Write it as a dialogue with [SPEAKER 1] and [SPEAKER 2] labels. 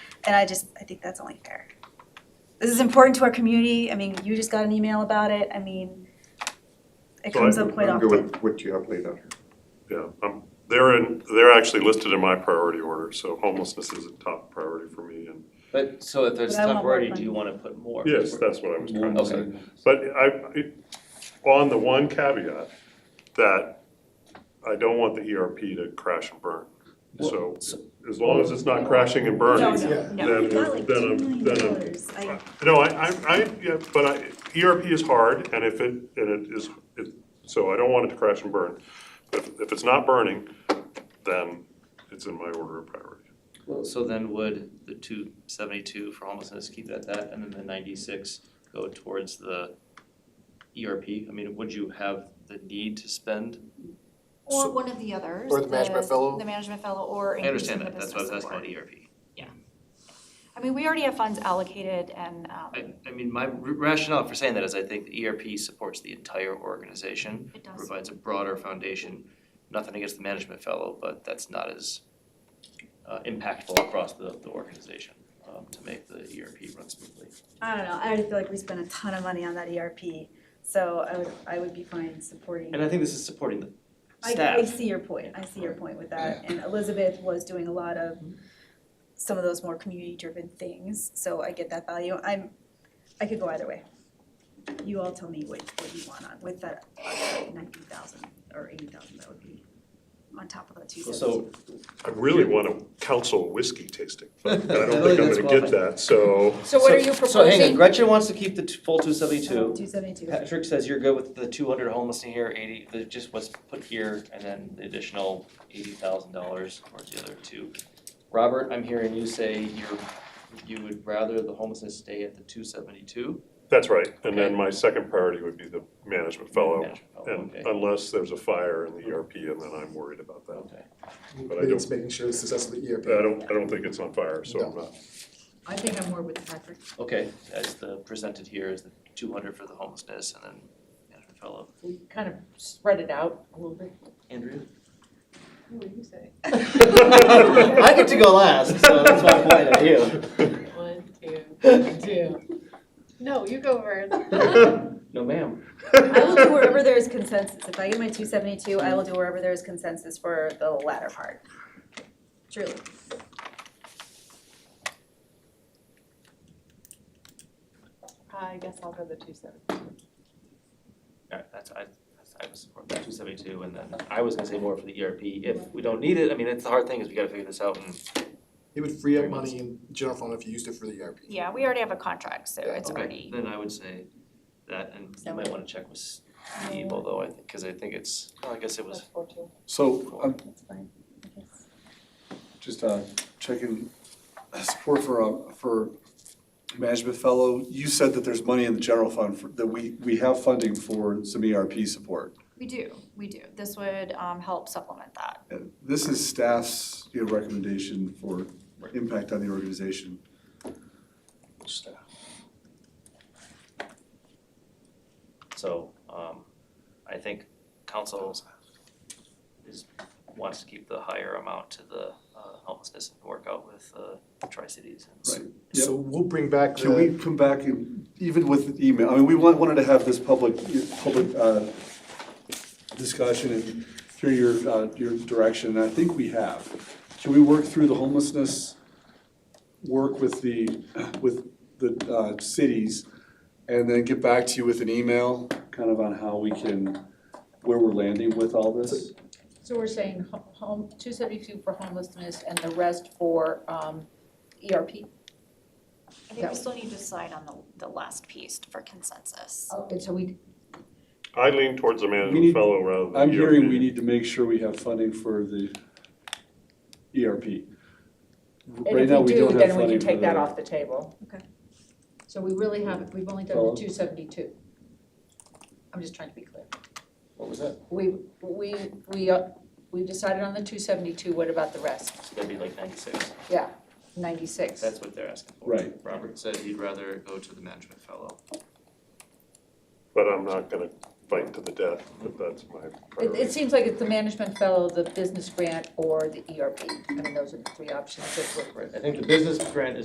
[SPEAKER 1] and I just, I think that's only fair. This is important to our community, I mean, you just got an email about it, I mean, it
[SPEAKER 2] So
[SPEAKER 1] comes
[SPEAKER 2] I-
[SPEAKER 1] up quite
[SPEAKER 3] I'm good
[SPEAKER 1] often.
[SPEAKER 3] with what you have laid out here.
[SPEAKER 2] Yeah, um, they're in, they're actually listed in my priority order, so homelessness is a top priority for me and
[SPEAKER 4] But, so if it's
[SPEAKER 1] But I want more
[SPEAKER 4] temporary, do
[SPEAKER 1] money.
[SPEAKER 4] you wanna put more?
[SPEAKER 2] yes, that's what I was trying to say.
[SPEAKER 4] Okay,
[SPEAKER 2] But I, I- on the one caveat, that I don't want the ERP to crash and burn. So as long as it's not crashing and
[SPEAKER 1] No,
[SPEAKER 2] burning,
[SPEAKER 1] no, no.
[SPEAKER 2] then, then I'm, then I'm No, I, I, I, yeah, but I, ERP is hard, and if it, and it is, it, so I don't want it to crash and burn. But if, if it's not burning, then it's in my order of priority.
[SPEAKER 4] so then would the two seventy-two for homelessness keep that that, and then the ninety-six go towards the ERP? I mean, would you have the need to spend?
[SPEAKER 5] Or
[SPEAKER 6] So-
[SPEAKER 5] one of the others.
[SPEAKER 6] Or the management fellow.
[SPEAKER 5] The management fellow or
[SPEAKER 4] I
[SPEAKER 5] increasing
[SPEAKER 4] understand
[SPEAKER 5] the
[SPEAKER 4] that,
[SPEAKER 5] business
[SPEAKER 4] that's why I was asking
[SPEAKER 5] support.
[SPEAKER 4] about E ERP.
[SPEAKER 5] I mean, we already have funds allocated and, um,
[SPEAKER 4] I, I mean, my rationale for saying that is I think the ERP supports the entire organization.
[SPEAKER 5] it does.
[SPEAKER 4] provides a broader foundation. Nothing against the management fellow, but that's not as uh, impactful across the, the organization um, to make the ERP run smoothly.
[SPEAKER 1] I don't know, I already feel like we spent a ton of money on that ERP, so I would, I would be fine supporting.
[SPEAKER 4] And I think this is supporting the
[SPEAKER 1] I, I
[SPEAKER 4] staff.
[SPEAKER 1] see your point, I see your point with that, and Elizabeth was doing a lot of some of those more community-driven things, so I get that value, I'm, I could go either way. You all tell me what, what you want on, with that ninety thousand or eighty thousand, that would be on top of the two seventy.
[SPEAKER 4] So,
[SPEAKER 2] I really want a council whiskey tasting, but I
[SPEAKER 4] I
[SPEAKER 2] don't
[SPEAKER 4] think
[SPEAKER 2] think I'm
[SPEAKER 4] that's
[SPEAKER 2] gonna get
[SPEAKER 4] qualified.
[SPEAKER 2] that, so.
[SPEAKER 7] So what are you
[SPEAKER 4] so hang on,
[SPEAKER 7] proposing?
[SPEAKER 4] Gretchen wants to keep the t- full two seventy-two.
[SPEAKER 1] Two seventy-two,
[SPEAKER 4] Patrick says you're good with the two hundred homeless in here, eighty, the- just what's put here, and then the additional eighty thousand dollars towards the other two. Robert, I'm hearing you say you're, you would rather the homelessness stay at the two seventy-two?
[SPEAKER 2] That's right, and then my second priority would be the management fellow. And
[SPEAKER 4] Okay,
[SPEAKER 2] unless there's a fire in the ERP, and then I'm worried about that.
[SPEAKER 4] okay.
[SPEAKER 2] But I
[SPEAKER 6] It's E making sure the success of the ERP.
[SPEAKER 2] I don't, I don't think it's on fire, so I'm not.
[SPEAKER 7] I think I'm more with Patrick.
[SPEAKER 4] Okay, as the presented here is the two hundred for the homelessness and then management fellow.
[SPEAKER 7] We kind of spread it out a little bit.
[SPEAKER 4] Andrea?
[SPEAKER 7] What do you say?
[SPEAKER 4] I get to go last, so that's why I'm pointing at you.
[SPEAKER 7] One, two, two. No, you go first.
[SPEAKER 4] No, ma'am.
[SPEAKER 1] I will do wherever there is consensus, if I get my two seventy-two, I will do wherever there is consensus for the latter part, truly.
[SPEAKER 7] I guess I'll go the two seven.
[SPEAKER 4] Alright, that's, I, that's- I was supporting two seventy-two and then I was gonna say more for the ERP if we don't need it. I mean, it's the hard thing is we gotta figure this out and
[SPEAKER 6] It would free
[SPEAKER 4] Very
[SPEAKER 6] up
[SPEAKER 4] much.
[SPEAKER 6] money in general fund if you used it for the E ERP.
[SPEAKER 5] Yeah, we already have a contract, so
[SPEAKER 6] Yeah,
[SPEAKER 5] it's
[SPEAKER 4] Okay,
[SPEAKER 5] already,
[SPEAKER 4] Then I would say that, and you might wanna check with Steve, although I think, cause I think it's, well, I guess it was,
[SPEAKER 7] four two.
[SPEAKER 8] So I'm
[SPEAKER 1] That's fine, I guess.
[SPEAKER 8] just uh, checking support for, uh, for management fellow. You said that there's money in the general fund, for- that we, we have funding for some ERP support.
[SPEAKER 5] we do, we do. This would, um, help supplement that.
[SPEAKER 8] And This is staff's, you know, recommendation for
[SPEAKER 4] Right.
[SPEAKER 8] impact on the organization. Staff.
[SPEAKER 4] uh, so, um, I think council is, wants to keep the higher amount to the uh, homelessness and work out with uh, the Tri-Cities and.
[SPEAKER 8] Right. Yep.
[SPEAKER 6] So we'll bring back
[SPEAKER 8] Can we
[SPEAKER 6] the,
[SPEAKER 8] come back and, even with the email, I mean, we want, wanted to have this public, public, uh, discussion and through your, uh, your direction, and I think we have. Can we work through the homelessness, work with the, with the, uh, cities, and then get back to you with an email, kind of on how we can, where we're landing with all this?
[SPEAKER 7] So we're saying ho- home, two seventy-two for homelessness and the rest for, um, ERP.
[SPEAKER 5] I think
[SPEAKER 7] Yeah.
[SPEAKER 5] we still need to decide on the, the last piece for consensus.
[SPEAKER 7] Oh, And so we,
[SPEAKER 2] I lean towards the
[SPEAKER 8] need-
[SPEAKER 2] management fellow rather than E the ERP.
[SPEAKER 8] I'm hearing we need to make sure we have funding for the ERP.
[SPEAKER 7] and
[SPEAKER 8] Right
[SPEAKER 7] if
[SPEAKER 8] now,
[SPEAKER 7] we
[SPEAKER 8] don't
[SPEAKER 7] do,
[SPEAKER 8] have
[SPEAKER 7] then we
[SPEAKER 8] funding
[SPEAKER 7] can
[SPEAKER 8] for
[SPEAKER 7] take that
[SPEAKER 8] the-
[SPEAKER 7] off the table.
[SPEAKER 1] Okay.
[SPEAKER 7] So we really haven't, we've only done
[SPEAKER 8] Follow?
[SPEAKER 7] the two seventy-two. I'm just trying to be clear.
[SPEAKER 4] What was that?
[SPEAKER 7] We, we, we, uh, we decided on the two seventy-two, what about the rest?
[SPEAKER 4] So that'd be like ninety-six,
[SPEAKER 7] Ninety-six.
[SPEAKER 4] that's what they're asking for.
[SPEAKER 8] Right.
[SPEAKER 4] Robert said he'd rather go to the management fellow.
[SPEAKER 2] But I'm not gonna fight to the death, if that's my
[SPEAKER 7] It,
[SPEAKER 2] priority.
[SPEAKER 7] it seems like it's the management fellow, E the business grant, or the ERP. I mean, those are the three options that we're
[SPEAKER 4] Right, I think the business grant is